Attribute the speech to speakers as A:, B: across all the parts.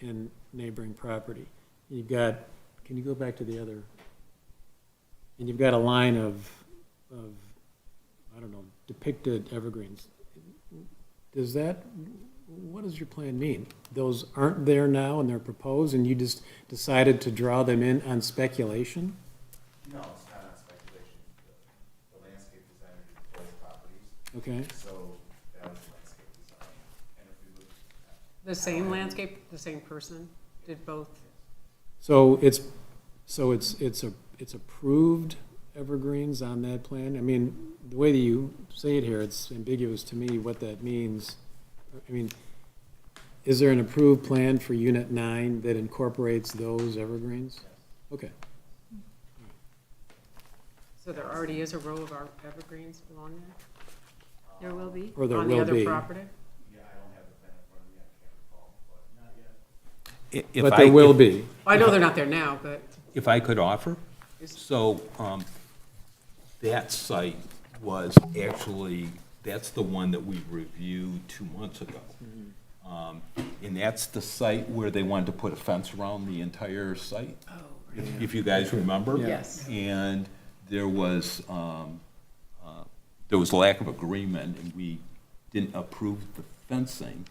A: and neighboring property. You've got, can you go back to the other? And you've got a line of, of, I don't know, depicted evergreens. Does that, what does your plan mean? Those aren't there now and they're proposed and you just decided to draw them in on speculation?
B: No, it's not on speculation. The- The landscape designer did both properties,
A: Okay,
B: so that was landscape design. And if we look, at-
C: The same landscape, the same person did both?
A: so it's, so it's, it's a, it's approved evergreens on that plan? I mean, the way that you say it here, it's ambiguous to me what that means. I mean, is there an approved plan for unit nine that incorporates those evergreens? Okay,
C: So there already is a row of our evergreens along
D: There will be.
A: or
C: there?
A: there
C: On the
A: will
C: other
A: be.
C: property?
B: yeah, I don't have the plan in front of me, I can't recall, but. Not yet.
E: If
A: But
E: I-
A: there will be.
C: I know they're not there now, but
E: If I could offer,
C: Yes.
E: so um, that site was actually, that's the one that we reviewed two months ago.
A: Mm-hmm.
E: Um, And that's the site where they wanted to put a fence around the entire site, if- if you guys remember.
C: Yes.
E: And there was, um, uh, there was lack of agreement, and we didn't approve the fencing.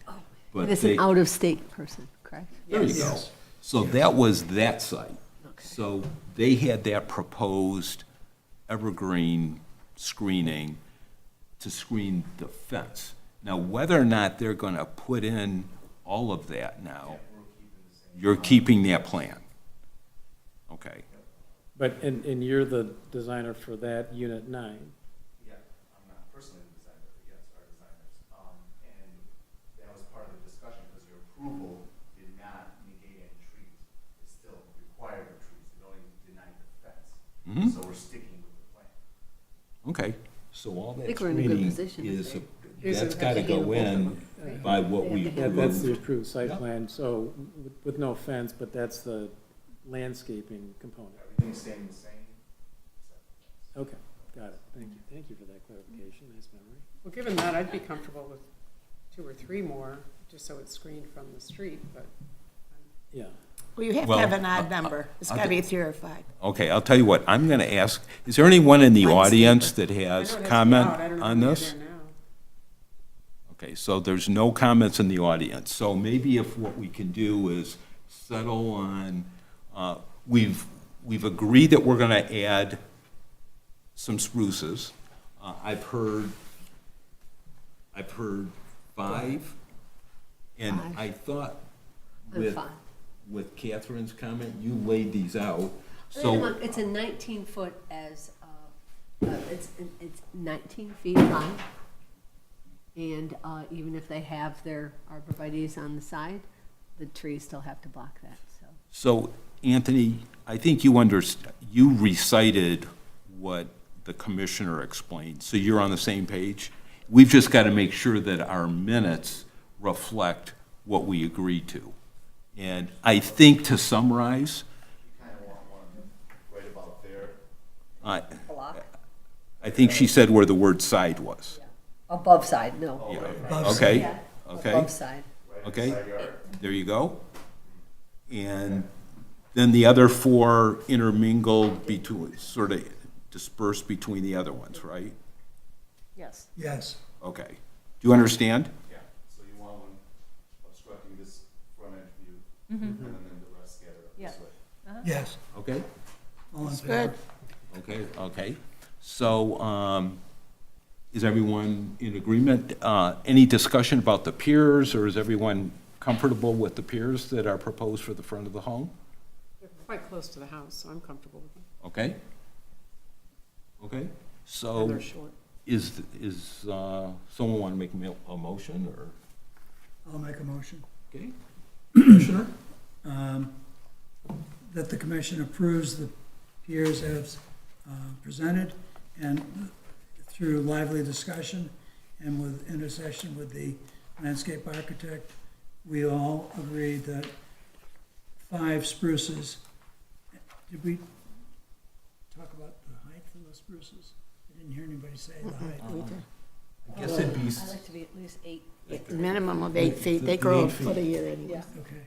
E: but
D: And it's
E: they-
D: an out-of-state person, correct?
E: there you go. So that was that site. So they had that proposed evergreen screening to screen the fence. Now, whether or not they're going to put in all of that now, you're keeping that plan. Okay.
A: But, and, and you're the designer for that unit nine?
B: Yeah, I'm not personally the designer, but yes, our designers. Um, and that was part of the discussion, because your approval did not negate any trees. It still required the trees, it only denied the fence.
E: Mhm.
B: So we're sticking with the plan.
E: Okay, so all
D: I
E: that
D: think we're in a good
E: screening
D: position, I
E: is,
D: think.
C: Is
E: that's
C: it-
E: got to go in by what we
A: Yeah, that's the
E: approved.
A: approved site
E: Yep.
A: plan, so with, with no offense, but that's the landscaping component.
B: Everything's staying the same, except the fence.
A: Okay, got it. Thank you. Thank you for that clarification. Nice memory.
C: Well, given that, I'd be comfortable with two or three more, just so it's screened from the street, but
A: Yeah.
F: Well, you have to
E: Well, uh,
F: have an
E: I-
F: odd number. It's
E: I'll
F: gotta
E: do-
F: be three or five.
E: Okay, I'll tell you what, I'm going to ask, is there anyone in the
F: Mine's
E: audience that
C: I know
E: has
C: it has to be
E: comment
C: out. I don't know
E: on
C: if
E: this?
C: they're there now.
E: Okay, so there's no comments in the audience, so maybe if what we can do is settle on, uh, we've, we've agreed that we're gonna add some spruces. Uh, I've heard, I've heard five, and I thought
D: I'm
E: with,
D: fine.
E: with Catherine's comment, you laid these out,
D: I
E: so.
D: mean, look, It's a 19-foot as, uh, uh, it's, it's 19 feet long. And uh, even if they have their arborvitae's on the side, the trees still have to block that, so.
E: So, Anthony, I think you under, you recited what the commissioner explained, so you're on the same page? We've just got to make sure that our minutes reflect what we agreed to. And I think to summarize,
B: You kind of want one right about there.
E: I,
D: Block?
E: I think she said where the word side was.
D: Above side, no.
E: Yeah, Okay, okay,
D: Above side.
E: okay, there you go. And then the other four intermingled between, sort of dispersed between the other ones, right?
D: Yes.
G: Yes.
E: Okay. Do you understand?
B: Yeah, so you want one obstructing this front edge view, and then the rest scatter up this
F: Yeah.
B: way.
G: Yes.
E: Okay.
G: All in
F: Good.
G: favor?
E: Okay, okay. So, um, is everyone in agreement? Uh, any discussion about the piers, or is everyone comfortable with the piers that are proposed for the front of the home?
C: They're quite close to the house, so I'm comfortable with them.
E: Okay? Okay,
C: And
E: so
C: they're short.
E: is, is, uh, someone want to make a mo- a motion, or?
G: I'll make a motion.
E: Okay.
G: Commissioner? um, That the commission approves the peers as uh, presented and through lively discussion and with intercession with the landscape architect, we all agreed that five spruces, did we talk about the height of the spruces? I didn't hear anybody say the height.
E: I guess it'd be,
D: like to be at least eight.
F: Minimum of eight feet. They grow a foot a year anyway.
D: Yeah.
G: Okay.